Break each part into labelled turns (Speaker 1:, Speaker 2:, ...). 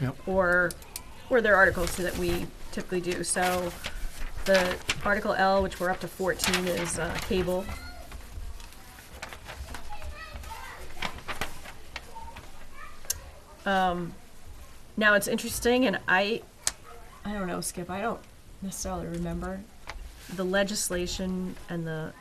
Speaker 1: Yep.
Speaker 2: or or their articles that we typically do. So the article L, which we're up to 14, is uh, cable. Um, now it's interesting, and I, I don't know, Skip. I don't necessarily remember the legislation and the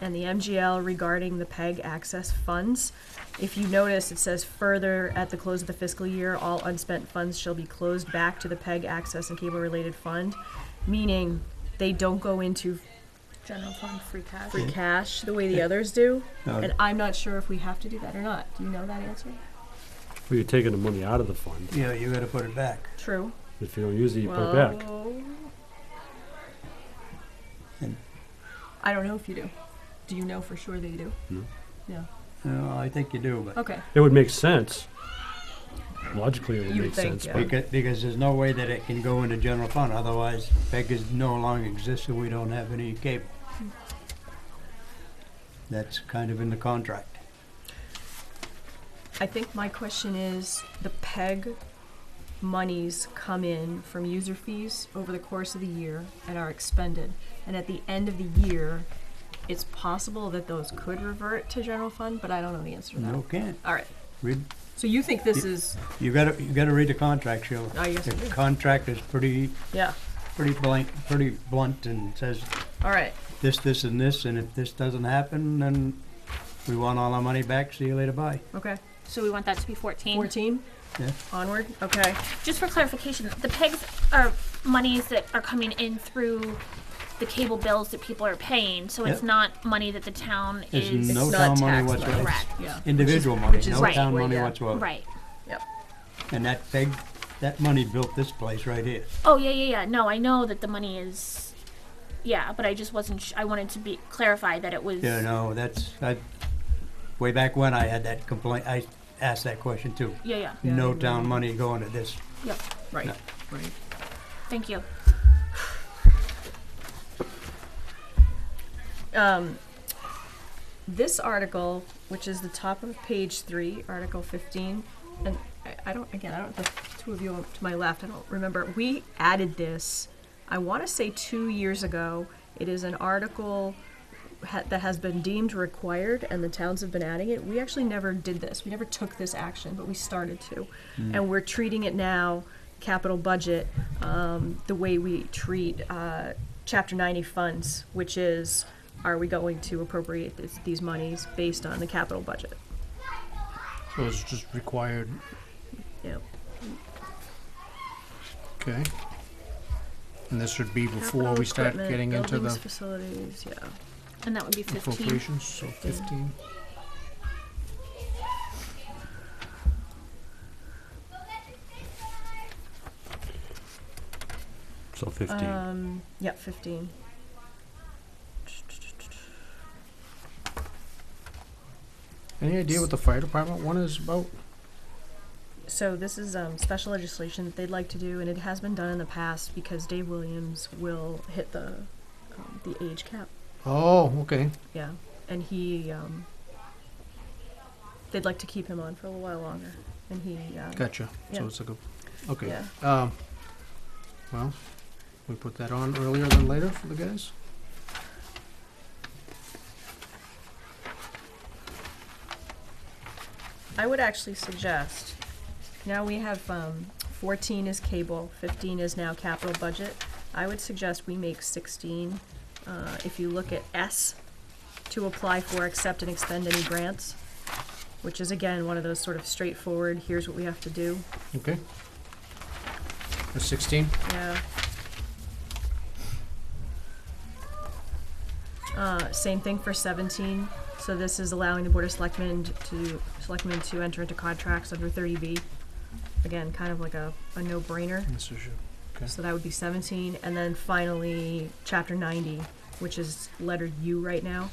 Speaker 2: and the MGL regarding the PEG access funds. If you notice, it says further at the close of the fiscal year, all unspent funds shall be closed back to the PEG access and cable related fund, meaning they don't go into
Speaker 3: General fund free cash.
Speaker 2: free cash the way the others do.
Speaker 4: Um,
Speaker 1: Now,
Speaker 2: And I'm not sure if we have to do that or not. Do you know that answer?
Speaker 4: Well, you're taking the money out of the fund.
Speaker 1: Yeah, you gotta put it back.
Speaker 2: True.
Speaker 4: If you don't use it, you put it back.
Speaker 2: Well,
Speaker 1: And-
Speaker 2: I don't know if you do. Do you know for sure that you do?
Speaker 1: No, I think you do, but
Speaker 2: Okay.
Speaker 4: It would make sense. Logically, it would
Speaker 2: You
Speaker 4: make
Speaker 2: would think,
Speaker 4: sense.
Speaker 2: yeah.
Speaker 4: but
Speaker 1: because, because there's no way that it can go into general fund, otherwise beggars no longer exist and we don't have any cable. That's kind of in the contract.
Speaker 2: I think my question is the PEG monies come in from user fees over the course of the year and are expended. And at the end of the year, it's possible that those could revert to general fund, but I don't know the answer to that.
Speaker 1: No can't.
Speaker 2: All right.
Speaker 1: Read,
Speaker 2: So you think this is,
Speaker 1: you gotta, you gotta read the contract, Sheila.
Speaker 2: I guess I
Speaker 1: The
Speaker 2: do.
Speaker 1: contract is pretty,
Speaker 2: yeah.
Speaker 1: pretty blank, pretty blunt and says
Speaker 2: All right.
Speaker 1: this, this and this, and if this doesn't happen, then we want all our money back, see you later, bye.
Speaker 2: Okay.
Speaker 3: So we want that to be 14.
Speaker 2: 14
Speaker 1: Yeah.
Speaker 2: onward. Okay.
Speaker 3: Just for clarification, the pegs are monies that are coming in through the cable bills that people are paying. So it's
Speaker 1: Yep.
Speaker 3: not money that the town
Speaker 1: There's
Speaker 3: is
Speaker 1: no
Speaker 2: not
Speaker 1: town money
Speaker 2: tax
Speaker 1: whatsoever.
Speaker 2: money.
Speaker 3: correct.
Speaker 2: Yeah.
Speaker 1: Individual money,
Speaker 2: which is
Speaker 1: no
Speaker 3: right.
Speaker 1: town
Speaker 2: Well,
Speaker 1: money
Speaker 2: yeah.
Speaker 1: whatsoever.
Speaker 3: Right.
Speaker 2: Yep.
Speaker 1: And that big, that money built this place right here.
Speaker 3: Oh yeah, yeah, yeah. No, I know that the money is. Yeah, but I just wasn't. Sh- I wanted to be clarify that it was.
Speaker 1: You know, that's, I, way back when I had that complaint, I asked that question too.
Speaker 3: Yeah, yeah.
Speaker 2: Yeah, I
Speaker 1: No
Speaker 2: remember.
Speaker 1: town money going to this.
Speaker 3: Yep.
Speaker 2: Right.
Speaker 1: Yeah.
Speaker 2: Right.
Speaker 3: Thank you.
Speaker 2: um, this article, which is the top of page three, Article 15, and I, I don't, again, I don't, the two of you to my left, I don't remember. We added this, I want to say two years ago. It is an article ha- that has been deemed required, and the towns have been adding it. We actually never did this. We never took this action, but we started to.
Speaker 5: Hmm.
Speaker 2: And we're treating it now, capital budget, um, the way we treat uh, Chapter 90 funds, which is are we going to appropriate this, these monies based on the capital budget?
Speaker 5: So it's just required,
Speaker 2: Yeah.
Speaker 5: okay? And this would be before we start getting into the
Speaker 2: facilities, yeah.
Speaker 3: And that would be 15.
Speaker 5: appropriations, so
Speaker 2: Fifteen.
Speaker 5: fifteen.
Speaker 4: So 15.
Speaker 2: Um, yeah, 15.
Speaker 5: Any idea what the fire department one is about?
Speaker 2: So this is um, special legislation that they'd like to do, and it has been done in the past because Dave Williams will hit the um, the age cap.
Speaker 5: Oh, okay,
Speaker 2: Yeah, and he um, they'd like to keep him on for a little while longer, and he uh,
Speaker 5: gotcha.
Speaker 2: Yeah.
Speaker 5: So it's like a, okay.
Speaker 2: yeah.
Speaker 5: Um, well, we put that on earlier than later for the guys?
Speaker 2: I would actually suggest, now we have, um, fourteen is cable, fifteen is now capital budget. I would suggest we make sixteen, uh, if you look at S, to apply for, accept and expend any grants, which is again, one of those sort of straightforward, here's what we have to do,
Speaker 5: Okay. Or sixteen?
Speaker 2: yeah. Uh, same thing for seventeen, so this is allowing the Board of Selectmen to, Selectmen to enter into contracts under thirty B. Again, kind of like a, a no-brainer,
Speaker 5: This is your,
Speaker 2: so that would be seventeen, and then finally, chapter ninety, which is letter U right now.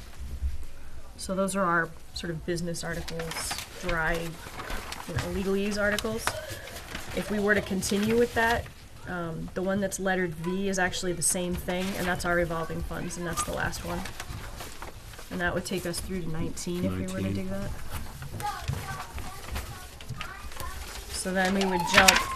Speaker 2: So those are our sort of business articles, dry, you know, legalese articles. If we were to continue with that, um, the one that's lettered V is actually the same thing, and that's our revolving funds, and that's the last one. And that would take us through to nineteen if we were to
Speaker 4: 19.
Speaker 2: do that. So then we would jump